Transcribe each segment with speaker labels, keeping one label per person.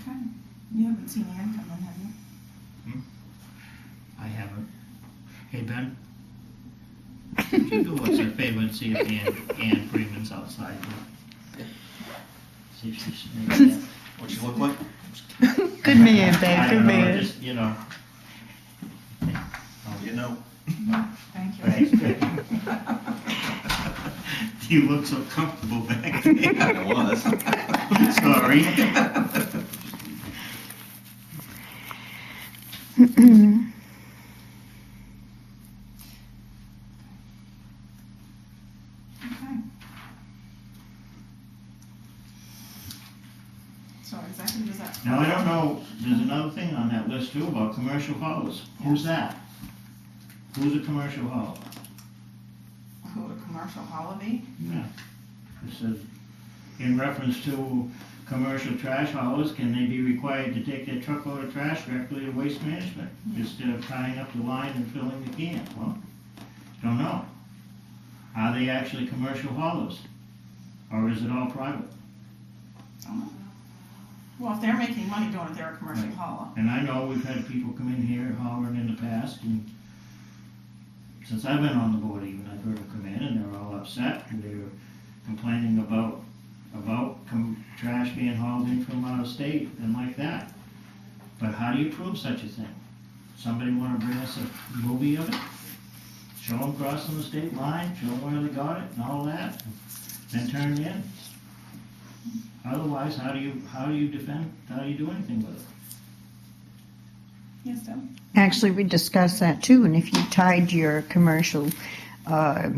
Speaker 1: Okay. You haven't seen Ann come in, have you?
Speaker 2: I haven't. Hey, Ben? Could you go what's her favorite and see if Ann, Ann Freeman's outside? See if she's maybe.
Speaker 3: What she look like?
Speaker 4: Good man,
Speaker 2: I
Speaker 4: babe. Good
Speaker 2: don't know,
Speaker 4: man.
Speaker 2: just, you know.
Speaker 3: You know.
Speaker 1: Thank you.
Speaker 2: Thanks, Ben. You look so comfortable back there.
Speaker 3: I was.
Speaker 2: Sorry.
Speaker 1: Okay. So exactly does that?
Speaker 2: Now, I don't know, there's another thing on that list too about commercial halls. Who's that? Who's a commercial hall?
Speaker 1: Who a commercial holiday?
Speaker 2: Yeah. It says, in reference to commercial trash haulers, can they be required to take their truckload of trash directly to waste management? Instead of tying up the line and filling the can? Well, don't know. Are they actually commercial haulers? Or is it all private?
Speaker 1: Well, if they're making money doing it, they're a commercial
Speaker 2: Right.
Speaker 1: hauler.
Speaker 2: And I know we've had people come in here hollering in the past, and since I've been on the board even, I've heard them come in and they're all upset, and they were complaining about, about com- trash being hauled in from out of state and like that. But how do you prove such a thing? Somebody wanna bring us a movie of it? Show them crossing the state line, show them where they got it and all that, then turn it in? Otherwise, how do you, how do you defend, how do you do anything with it?
Speaker 1: Yes, Deb?
Speaker 4: Actually, we discussed that too, and if you tied your commercial, uh,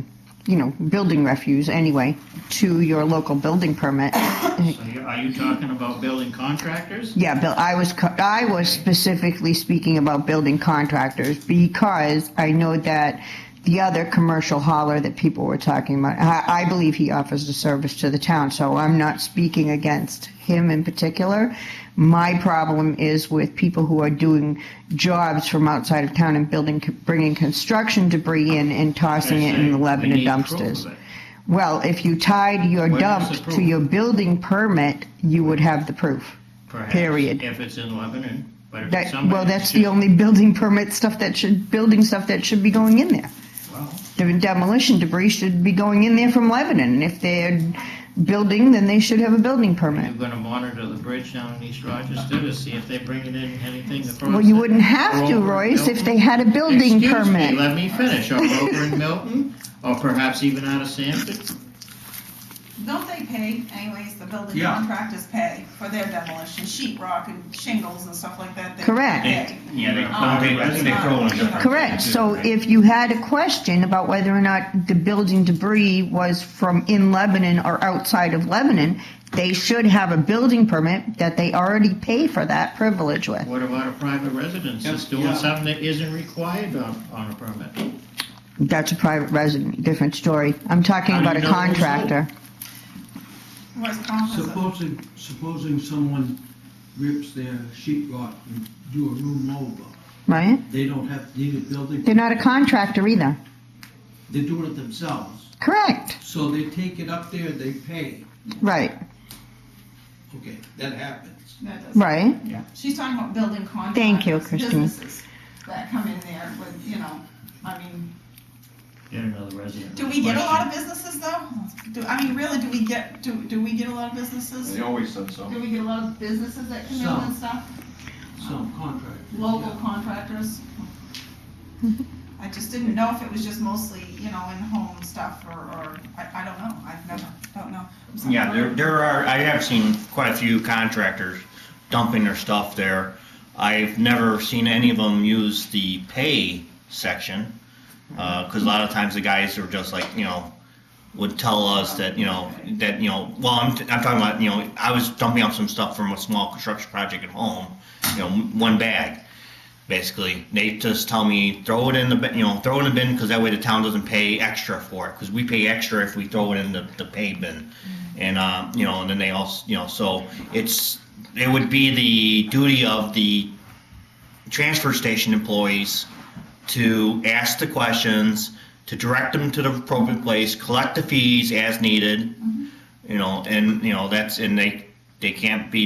Speaker 4: you know, building refuse anyway, to your local building permit,
Speaker 2: So you- are you talking about building contractors?
Speaker 4: Yeah, Bill, I was, co- I was specifically speaking about building contractors because I know that the other commercial hauler that people were talking about, I, I believe he offers a service to the town, so I'm not speaking against him in particular. My problem is with people who are doing jobs from outside of town and building, bringing construction debris in and tossing it in
Speaker 2: They're saying
Speaker 4: the
Speaker 2: we
Speaker 4: Lebanon
Speaker 2: need proof
Speaker 4: dumpsters.
Speaker 2: of it.
Speaker 4: Well, if you tied your
Speaker 2: Where does it
Speaker 4: dump to
Speaker 2: prove?
Speaker 4: your building permit, you would have the proof.
Speaker 2: Perhaps,
Speaker 4: Period.
Speaker 2: If it's in Lebanon, but if it's
Speaker 4: That,
Speaker 2: somebody.
Speaker 4: well, that's the only building permit stuff that should, building stuff that should be going in there.
Speaker 2: Well,
Speaker 4: The demolition debris should be going in there from Lebanon. And if they're building, then they should have a building
Speaker 2: You're
Speaker 4: permit.
Speaker 2: gonna monitor the bridge down in East Rochester to see if they're bringing in anything across.
Speaker 4: Well, you
Speaker 2: the-
Speaker 4: wouldn't have
Speaker 2: or
Speaker 4: to,
Speaker 2: over in
Speaker 4: Royce, if
Speaker 2: Milton.
Speaker 4: they had a building
Speaker 2: Excuse me,
Speaker 4: permit.
Speaker 2: let me finish, or over in Milton, or perhaps even out of Sanford.
Speaker 1: Don't they pay anyways, the building
Speaker 3: Yeah.
Speaker 1: contractors pay for their demolition, sheet rock and shingles and stuff like that? they
Speaker 4: Correct.
Speaker 1: pay.
Speaker 5: Yeah,
Speaker 2: Oh,
Speaker 5: they,
Speaker 1: Um,
Speaker 5: they, I think they throw in different.
Speaker 4: Correct. So if you had a question about whether or not the building debris was from in Lebanon or outside of Lebanon, they should have a building permit that they already pay for that privilege with.
Speaker 2: What about a private residence that's doing
Speaker 3: Yeah.
Speaker 2: something that isn't required on, on a permit?
Speaker 4: That's a private resident, different story. I'm talking
Speaker 2: How do
Speaker 4: about
Speaker 2: you
Speaker 4: a
Speaker 2: know who's
Speaker 4: contractor.
Speaker 1: Where's Palmer's?
Speaker 6: Supposing, supposing someone rips their sheet rock and do a room over,
Speaker 4: Right?
Speaker 6: they don't have, need a building,
Speaker 4: They're not a contractor either.
Speaker 6: they do it themselves.
Speaker 4: Correct.
Speaker 6: So they take it up there, they pay,
Speaker 4: Right,
Speaker 6: okay, that happens.
Speaker 1: That does-
Speaker 4: right.
Speaker 1: She's talking about building contractors.
Speaker 4: Thank you, Christine.
Speaker 1: Businesses that come in there with, you know, I mean,
Speaker 2: Get another resident.
Speaker 1: do we get a lot of businesses though? Do, I mean, really, do we get, do, do we get a lot of businesses?
Speaker 3: They always said so.
Speaker 1: Do we get a lot of businesses that come in
Speaker 6: Some.
Speaker 1: and stuff?
Speaker 6: Some contract.
Speaker 1: local contractors. I just didn't know if it was just mostly, you know, in-home stuff or, or, I, I don't know, I've never, don't know. I'm sorry.
Speaker 5: Yeah, there, there are, I have seen quite a few contractors dumping their stuff there. I've never seen any of them use the pay section, Uh 'cause cause a lot of times the guys are just like, you know, would tell us that, you know, that, you know, well, I'm, I'm talking about, you know, I was dumping up some stuff from a small construction project at home, you know, one bag. basically. They just tell me throw it in the bin, you know throw it in the bin because that way the town doesn't pay extra for it because we pay extra if we throw it in the, the pay bin, and um, you know and then they also you know so it's it would be the duty of the transfer station employees to ask the questions, to direct them to the appropriate place, collect the fees as needed, you know and you know that's and they they can't be